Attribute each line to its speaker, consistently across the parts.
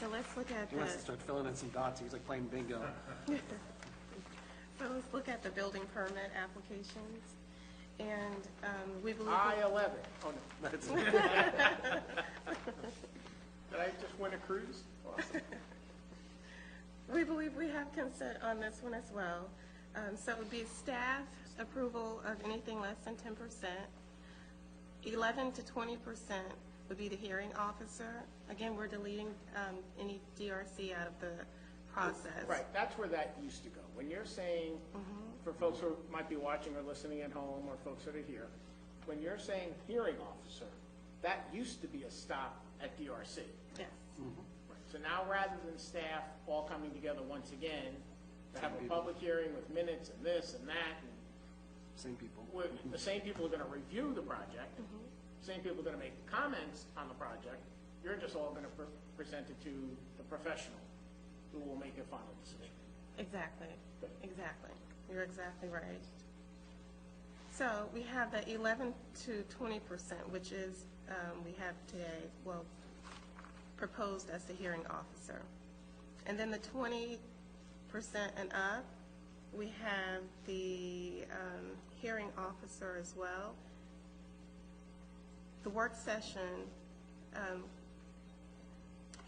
Speaker 1: so let's look at
Speaker 2: He wants to
Speaker 1: the,
Speaker 2: start filling in some dots, he's like playing bingo.
Speaker 1: so let's look at the building permit applications. And um, we believe,
Speaker 3: I eleven. Oh, no.
Speaker 2: That's-
Speaker 3: Did I just win a cruise? Awesome.
Speaker 1: we believe we have consent on this one as well. Um, So it would be staff approval of anything less than ten percent. Eleven to twenty percent would be the hearing officer. Again, we're deleting um, any DRC out of the process.
Speaker 3: Right, that's where that used to go. When you're saying, for folks who might be watching or listening at home, or folks that are here, when you're saying hearing officer, that used to be a stop at DRC.
Speaker 1: Yes,
Speaker 3: Right. So now, rather than staff all coming together once again to have a public hearing with minutes and this and that, and
Speaker 2: Same people.
Speaker 3: we're- the same people are gonna review the project, same people are gonna make comments on the project, you're just all gonna pre- present it to the professional, who will make a final decision.
Speaker 1: exactly, exactly. You're exactly right. So we have the eleven to twenty percent, which is, um, we have today, well, proposed as the hearing officer. And then the twenty percent and up, we have the, um, hearing officer as well. The work session, um,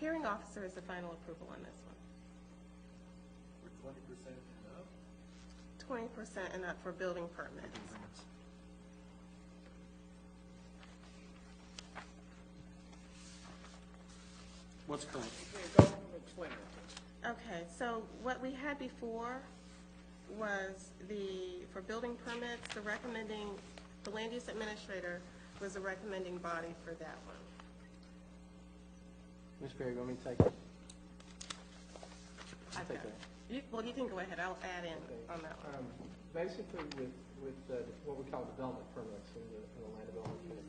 Speaker 1: hearing officer is the final approval on this one.
Speaker 4: twenty percent and up?
Speaker 1: twenty percent and up for building permits.
Speaker 2: What's current?
Speaker 3: Yeah, Go explain it.
Speaker 1: Okay, so what we had before was the, for building permits, the recommending, the land use administrator was the recommending body for that one.
Speaker 5: Ms. Perry, let me take it.
Speaker 1: I've got-
Speaker 5: Okay.
Speaker 1: You, well, you can go ahead, I'll add in on that one.
Speaker 5: Um, Basically, with, with uh, what we call development permits in the, in the land development code,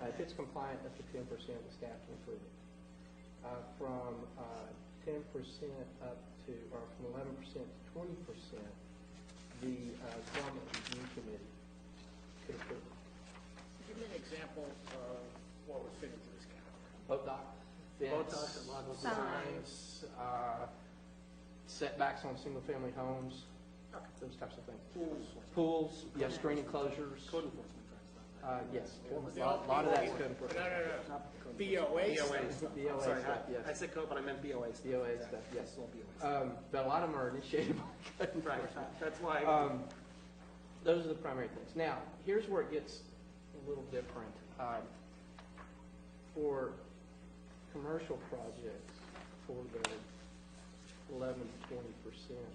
Speaker 5: uh, if it's compliant, up to ten percent, the staff can approve it. Uh, From ten percent up to, or from eleven percent to twenty percent, the uh, development review committee could approve it.
Speaker 3: Give me an example of what would fit into this category.
Speaker 5: ODOT,
Speaker 2: ODOT and
Speaker 5: fence,
Speaker 2: local
Speaker 5: signs, uh, setbacks on single-family homes, those types of things. Pools, you have screen enclosures.
Speaker 2: Code enforcement drives that.
Speaker 5: Uh, yes, a lot lot of that's code enforcement.
Speaker 3: No, no,
Speaker 2: Uh.
Speaker 3: no, no. BOA
Speaker 2: BOA
Speaker 3: stuff.
Speaker 2: stuff. I'm
Speaker 5: BOA
Speaker 2: Sorry,
Speaker 5: stuff,
Speaker 2: I-
Speaker 5: yes.
Speaker 2: I said code, but I meant BOA stuff.
Speaker 5: BOA stuff, yes.
Speaker 2: It's all BOA stuff.
Speaker 5: Um, but a lot of them are initiated by code
Speaker 2: Right,
Speaker 5: enforcement.
Speaker 2: that's why.
Speaker 5: Um, those are the primary things. Now, here's where it gets a little different. Um, for commercial projects, for the eleven to twenty percent,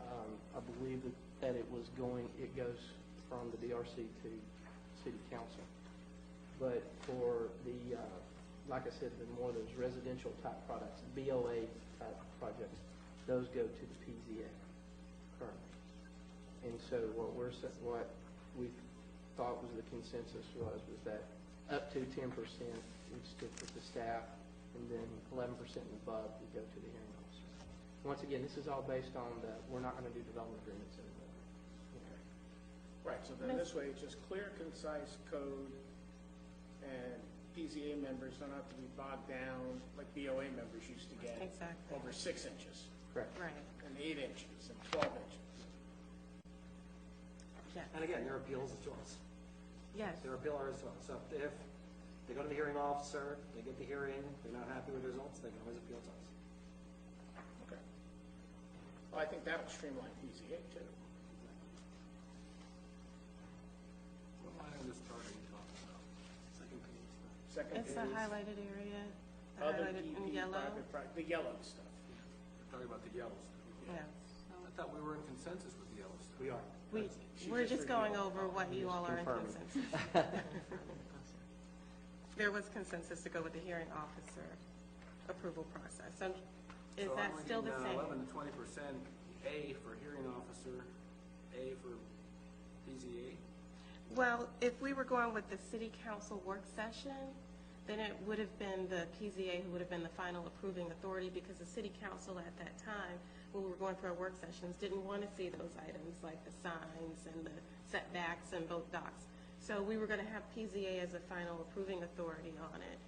Speaker 5: um, I believe that, that it was going, it goes from the DRC to city council. But for the, uh, like I said, the more those residential type products, BOA type projects, those go to the PZA currently. And so what we're, sa- what we thought was the consensus was, was that up to ten percent would stick with the staff, and then eleven percent and above would go to the hearing officer. Once again, this is all based on the, we're not gonna do development agreements anymore.
Speaker 3: Right, so then this way, it's just clear, concise code, and PZA members don't have to be bogged down like BOA members used to get.
Speaker 1: Exactly.
Speaker 3: Over six inches,
Speaker 5: Correct.
Speaker 1: Right,
Speaker 3: and eight inches, and twelve inches.
Speaker 1: yes,
Speaker 2: And again, their appeal is to us.
Speaker 1: yes,
Speaker 2: Their appeal is to us. So if they go to the hearing officer, they get the hearing, they're not happy with the results, they can always appeal to us.
Speaker 3: Okay. Well, I think that'll streamline PZA too.
Speaker 2: What line on this chart are you talking about? Second page.
Speaker 3: Second
Speaker 1: it's
Speaker 3: is
Speaker 1: the highlighted area, the
Speaker 3: other E
Speaker 1: highlighted in
Speaker 3: DP
Speaker 1: yellow,
Speaker 3: private pro- The yellow stuff.
Speaker 6: Talking about the Yellowstone.
Speaker 1: yeah.
Speaker 6: I thought we were in consensus with the Yellowstone.
Speaker 2: We are.
Speaker 1: We, we're just going over what you all are in
Speaker 5: confirming.
Speaker 1: consensus. There was consensus to go with the hearing officer approval process, so is
Speaker 6: So
Speaker 1: that
Speaker 6: I'm
Speaker 1: still the
Speaker 6: looking, uh,
Speaker 1: same?
Speaker 6: Eleven to twenty percent, A for hearing officer, A for PZA.
Speaker 1: Well, if we were going with the city council work session, then it would have been the PZA who would have been the final approving authority because the city council at that time, when we were going through our work sessions, didn't want to see those items like the signs and the setbacks and boat docks. So we were going to have PZA as the final approving authority on it.